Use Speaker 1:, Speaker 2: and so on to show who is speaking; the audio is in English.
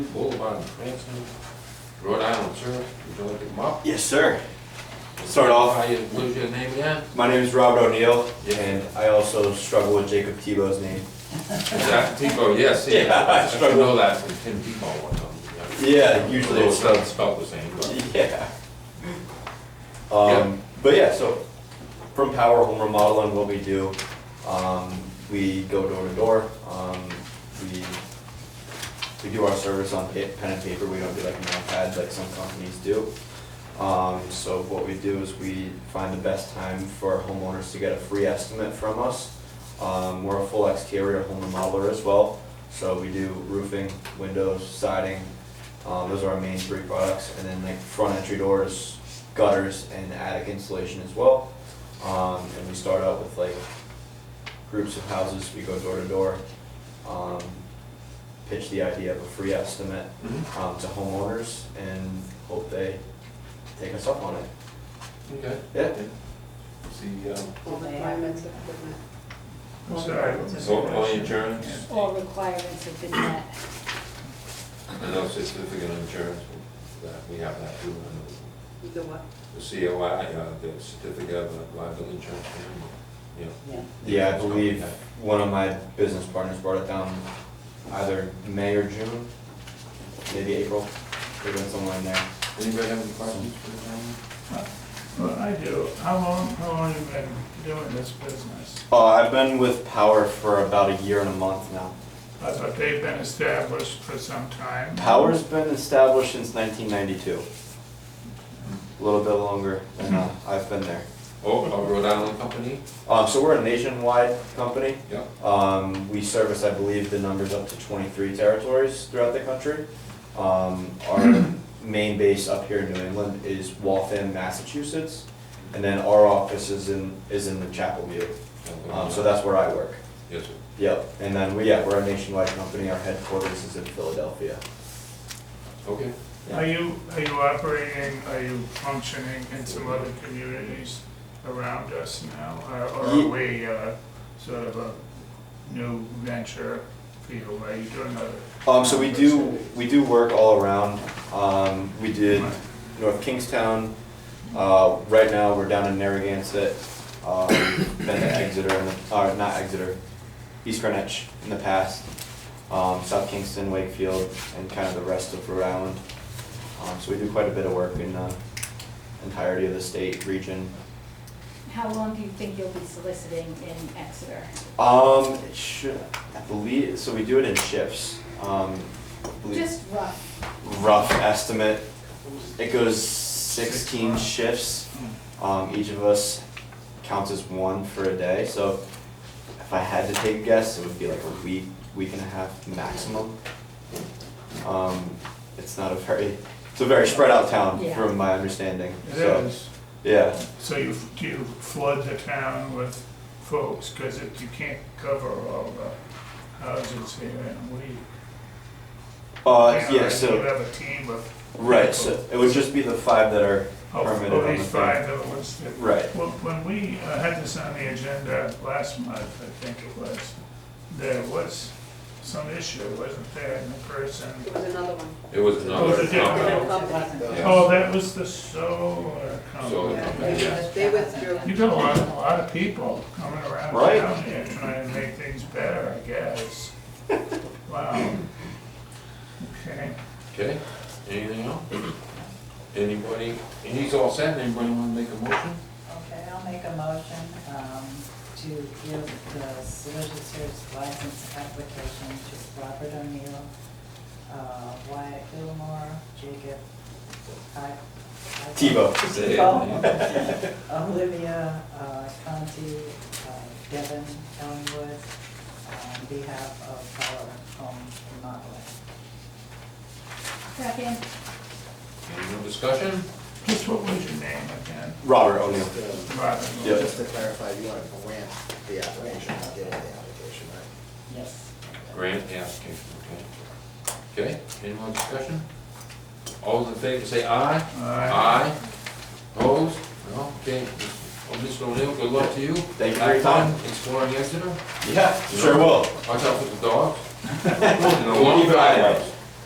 Speaker 1: Boulevard in Cranston, Rhode Island, sir. Would you like to come up?
Speaker 2: Yes, sir. Start off.
Speaker 1: How you, what is your name again?
Speaker 2: My name is Robert O'Neill, and I also struggle with Jacob Tebow's name.
Speaker 1: Zach Tebow, yes, yes.
Speaker 2: Yeah, I
Speaker 1: I should
Speaker 2: struggled.
Speaker 1: know that from Tim Tebow one time.
Speaker 2: Yeah, usually
Speaker 1: Although
Speaker 2: it's-
Speaker 1: it doesn't spell the same, but.
Speaker 2: Yeah.
Speaker 1: Yeah.
Speaker 2: Um, but yeah, so from Power Home Remodeling, what we do, um, we go door to door. Um, we we do our service on pa- pen and paper. We don't do like an iPad like some companies do. Um, so what we do is we find the best time for homeowners to get a free estimate from us. Um, we're a full exterior home remodeler as well. So we do roofing, windows, siding, um, those are our main three products, and then like front entry doors, gutters, and attic insulation as well. Um, and we start out with like groups of houses, we go door to door, um, pitch the idea of a free estimate,
Speaker 1: Mhm.
Speaker 2: um, to homeowners and hope they take us up on it.
Speaker 1: Okay.
Speaker 2: Yeah.
Speaker 1: See, um,
Speaker 3: All requirements of equipment.
Speaker 4: I'm sorry.
Speaker 1: so all your insurance,
Speaker 4: All
Speaker 3: All requirements have been met.
Speaker 1: and no certificate of insurance, that, we have that too. and
Speaker 3: The what?
Speaker 1: The COI, uh, the certificate of liability insurance, yeah.
Speaker 3: Yeah.
Speaker 2: Yeah, I believe one of my business partners brought it down either May or June, maybe April, there's been someone in there.
Speaker 1: Anybody have any questions for the gentleman?
Speaker 4: Well, I do. How long, how long you been doing this business?
Speaker 2: Uh, I've been with Power for about a year and a month now.
Speaker 4: I thought they've been established for some time.
Speaker 2: Power's been established since 1992. A little bit longer than uh, I've been there.
Speaker 1: Oh, a Rhode Island company?
Speaker 2: Um, so we're a nationwide company.
Speaker 1: Yeah.
Speaker 2: Um, we service, I believe, the numbers up to 23 territories throughout the country. Um, our main base up here in New England is Waltham, Massachusetts, and then our office is in is in the Chapel View. Um, so that's where I work.
Speaker 1: Yes, sir.
Speaker 2: Yep. And then we yeah we're a nationwide company. Our headquarters is in Philadelphia.
Speaker 1: Okay.
Speaker 4: Are you, are you operating, are you functioning in some other communities around us now? Or or
Speaker 2: Ye-
Speaker 4: are we uh, sort of a new venture for you? Are you doing other?
Speaker 2: Um, so we do, we do work all around. Um, we did North Kingstown. Uh, right now, we're down in Narragansett. Um, been to Exeter, in the- or not Exeter, East Greenwich in the past. Um, South Kingston, Wakefield, and kind of the rest of Rhode Island. Um, so we do quite a bit of work in the entirety of the state region.
Speaker 5: How long do you think you'll be soliciting in Exeter?
Speaker 2: Um, it should, I believe, so we do it in shifts. Um, I believe-
Speaker 5: Just rough.
Speaker 2: rough estimate. It goes sixteen shifts.
Speaker 4: Mm.
Speaker 2: Um, each of us counts as one for a day, so if I had to take a guess, it would be like a week, week and a half maximum. Um, it's not a very, it's a very spread out town,
Speaker 5: Yeah.
Speaker 2: from my understanding,
Speaker 4: It
Speaker 2: so,
Speaker 4: is.
Speaker 2: yeah.
Speaker 4: So you, do you flood the town with folks, because you can't cover all the houses here in a week?
Speaker 2: Uh, yeah,
Speaker 4: You
Speaker 2: so,
Speaker 4: have a team of.
Speaker 2: right, so it would just be the five that are
Speaker 4: Of
Speaker 2: permitted
Speaker 4: of
Speaker 2: on the
Speaker 4: these five that were listed.
Speaker 2: Right.
Speaker 4: Well, when we uh, had this on the agenda last month, I think it was, there was some issue, wasn't there, in the person?
Speaker 3: It was another one.
Speaker 1: It was
Speaker 4: Oh,
Speaker 1: another
Speaker 4: it's a different
Speaker 1: company. Yeah.
Speaker 4: Oh, that was the solar
Speaker 1: Solar
Speaker 4: company.
Speaker 1: company, yes.
Speaker 3: They withdrew.
Speaker 4: You got a lot, a lot of people coming around
Speaker 2: Right.
Speaker 4: town here trying to make things better, I guess. Wow. Okay.
Speaker 1: Okay, anything else? Anybody, and he's all set, anybody wanna make a motion?
Speaker 6: Okay, I'll make a motion um, to give the solicitor's license application to Robert O'Neill, uh, Wyatt Gilmore, Jacob I- I-
Speaker 2: Tebow.
Speaker 6: Tebow, Olivia uh, Conti, uh, Devin Ellenwood, uh, on behalf of our home remodeling.
Speaker 5: Second,
Speaker 1: Any more discussion?
Speaker 4: Just what was your name again?
Speaker 2: Robert O'Neill.
Speaker 4: Robin.
Speaker 2: Yep.
Speaker 7: Just to clarify, you want to grant the application, not give the application, right?
Speaker 6: Yes.
Speaker 1: Grant the application, okay. Okay, any more discussion? All those in favor say aye?
Speaker 4: Aye.
Speaker 1: Opposed? No, okay. Well, Mr. O'Neill, good luck to you.
Speaker 2: Thank you for your
Speaker 1: Have fun
Speaker 2: time.
Speaker 1: Exploring Exeter,
Speaker 2: Yeah, sure will.
Speaker 1: watch out for the dogs. And the
Speaker 2: We'll
Speaker 1: long
Speaker 2: keep an eye out.
Speaker 1: driveways.